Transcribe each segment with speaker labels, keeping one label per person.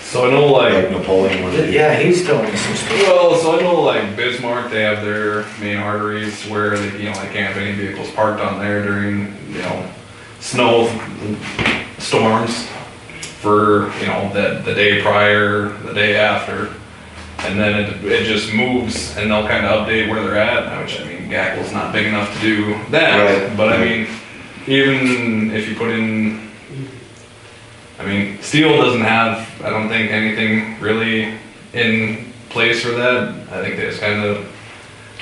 Speaker 1: So I know
Speaker 2: like
Speaker 1: like,
Speaker 2: Napoleon was.
Speaker 3: Yeah, he's doing some stuff.
Speaker 1: well, so I know like Bismarck, they have their main arteries where they, you know, they can't have any vehicles parked on there during, you know, snow storms for, you know, the, the day prior, the day after. And then it, it just moves and they'll kind of update where they're at, which I mean, Gackle's not big enough to do that.
Speaker 2: Right.
Speaker 1: But I mean, even if you put in I mean, steel doesn't have, I don't think, anything really in place for that. I think they just kind of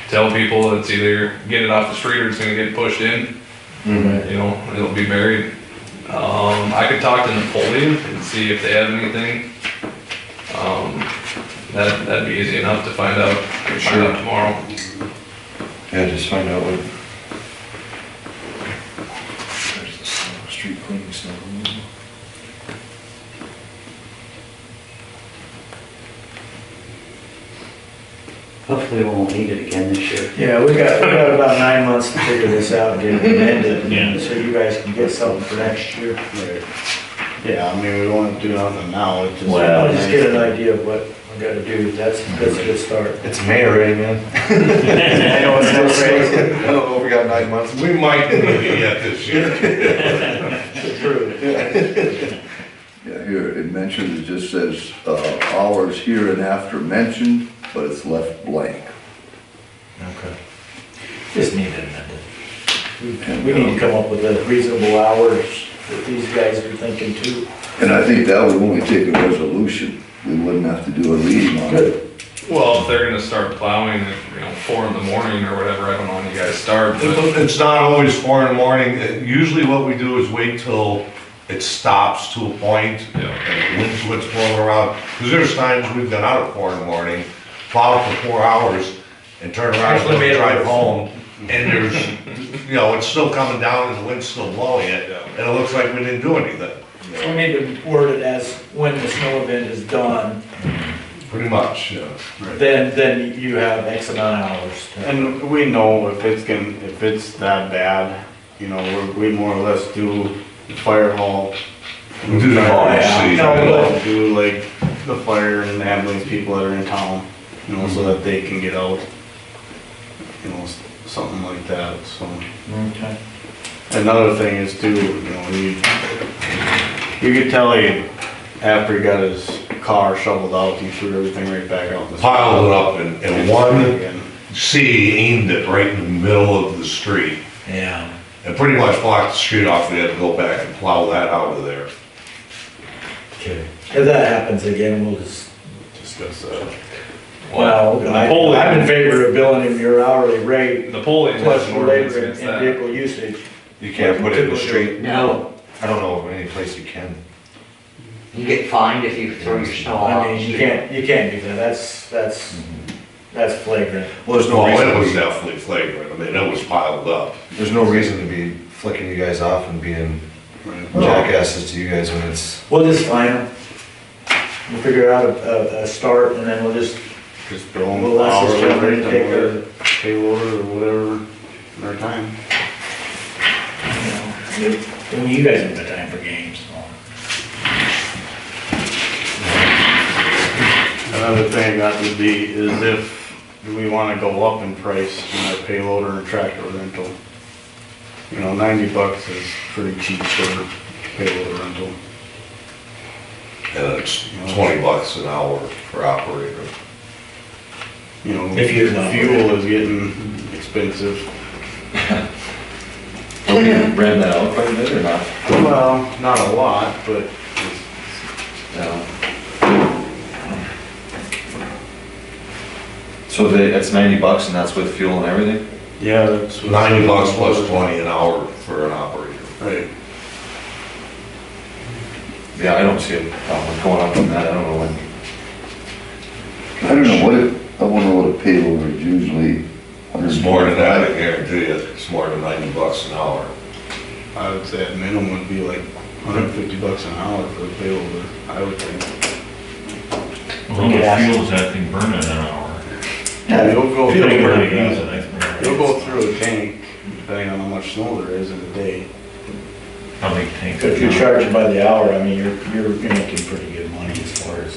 Speaker 1: tell people it's either get it off the street or it's going to get pushed in,
Speaker 2: Mhm.
Speaker 1: you know, it'll be buried. Um, I could talk to Napoleon and see if they have anything. Um, that, that'd be easy enough to find out, find out tomorrow.
Speaker 2: Yeah, just find out what. There's the snow, Street cleaning snow. removal.
Speaker 4: Hopefully we won't need it again this year.
Speaker 3: Yeah, we got, we got about nine months to figure this out, get it amended, and so you guys can get something for next year.
Speaker 5: Right. Yeah, I mean, we don't want to do nothing now, it's just.
Speaker 3: Well, just get an idea of what we gotta do, that's, that's a good start.
Speaker 2: It's May already, man.
Speaker 3: I know it's not crazy.
Speaker 2: I don't know if we got nine months. We might maybe yet this year.
Speaker 6: Yeah, here, it mentions, it just says, uh, hours here and after mentioned, but it's left blank.
Speaker 2: Okay.
Speaker 3: Just need it amended. We need to come up with a reasonable hours that these guys are thinking too.
Speaker 6: And I think that would only take a resolution, we wouldn't have to do a reading on it.
Speaker 1: Well, if they're going to start plowing at, you know, four in the morning or whatever, I don't know when you guys start, but
Speaker 7: It's not always four in the morning. Usually what we do is wait till it stops to a point,
Speaker 1: you know,
Speaker 7: and winds what's blowing around. Because there's times we've gone out at four in the morning, plowed for four hours, and turned around
Speaker 3: Actually, we
Speaker 7: and
Speaker 3: had-
Speaker 7: drive home, and there's, you know, it's still coming down and the wind's still blowing it, and it looks like we didn't do anything,
Speaker 3: We need to word it as when the snow event is done,
Speaker 7: pretty much, you know.
Speaker 3: then, then you have X amount of hours. to-
Speaker 5: And we know if it's going if it's that bad, you know, we're- we more or less do the fire hall.
Speaker 7: We do the hall,
Speaker 3: Oh, yeah.
Speaker 5: We
Speaker 3: No, no.
Speaker 5: Do like the fire and the ambulance people that are in town, you know, so that they can get out. You know, s- something like that, so.
Speaker 3: Okay.
Speaker 5: Another thing is too, you know, you, you could tell he, after he got his car shoveled out, he threw everything right back out. in the-
Speaker 7: Piled it up, and, and one
Speaker 5: Again.
Speaker 7: C aimed it right in the middle of the street.
Speaker 3: Yeah.
Speaker 7: And pretty much blocked the street off, we had to go back and plow that out of there.
Speaker 3: Okay. If that happens again, we'll just
Speaker 7: Discuss that.
Speaker 3: Well, I-
Speaker 1: Napoleon-
Speaker 3: I'm in favor of billing him your hourly rate
Speaker 1: Napoleon
Speaker 3: plus
Speaker 1: has an
Speaker 3: for
Speaker 1: ordinance
Speaker 3: labor and
Speaker 1: against that.
Speaker 3: vehicle usage.
Speaker 2: You can't put it in the street?
Speaker 8: No,
Speaker 2: I don't know of any place you can.
Speaker 8: you get fined if you throw your snow
Speaker 3: I
Speaker 8: out.
Speaker 3: mean,
Speaker 2: Oh,
Speaker 3: you can't, you can't do that, that's, that's,
Speaker 2: Mm-hmm.
Speaker 3: that's flagrant.
Speaker 2: Well, there's no
Speaker 7: Well, it was
Speaker 2: reason, to
Speaker 7: definitely flagrant, I mean, it was piled up.
Speaker 2: be- there's no reason to be flicking you guys off and being
Speaker 7: Oh.
Speaker 2: jackasses to you guys when it's,
Speaker 3: We'll just fine him. We'll figure out a, a, a start and then we'll just,
Speaker 5: Just bill them
Speaker 3: we'll
Speaker 5: for
Speaker 3: ask
Speaker 5: hour
Speaker 3: this gentleman
Speaker 5: rate,
Speaker 3: to take
Speaker 5: or
Speaker 3: the,
Speaker 5: pay order, or whatever, their time.
Speaker 3: you know, I mean, you guys have the time for games.
Speaker 5: Another thing that would be, is if we wanna go up in price in our payloader and tractor rental. You know, ninety bucks is pretty cheap for payloader rental.
Speaker 7: And it's twenty bucks an hour per operator.
Speaker 5: You know,
Speaker 3: If you're not-
Speaker 5: fuel is getting expensive.
Speaker 2: okay, ran that out quite a bit or not?
Speaker 5: Well, not a lot, but it's
Speaker 2: No. So they, it's ninety bucks and that's with fuel and everything?
Speaker 5: Yeah, that's. what-
Speaker 7: Ninety bucks plus twenty an hour for an operator.
Speaker 5: Right.
Speaker 2: Yeah, I don't see a problem going up on that, I don't know when.
Speaker 6: I don't know what it, I wonder what a payload is usually.
Speaker 7: It's more than that, I guarantee you, it's more than ninety bucks an hour.
Speaker 5: I would say at minimum would be like hundred and fifty bucks an hour for a payloader, I would think.
Speaker 9: Well, the fuel's that thing burning an hour.
Speaker 5: Yeah, you'll go.
Speaker 9: They
Speaker 5: through-
Speaker 9: barely use it, I think.
Speaker 5: You'll go through a tank, depending on how much snow there is in a day.
Speaker 9: How big tank.
Speaker 3: If you're charging by the hour, I mean, you're, you're, you're making pretty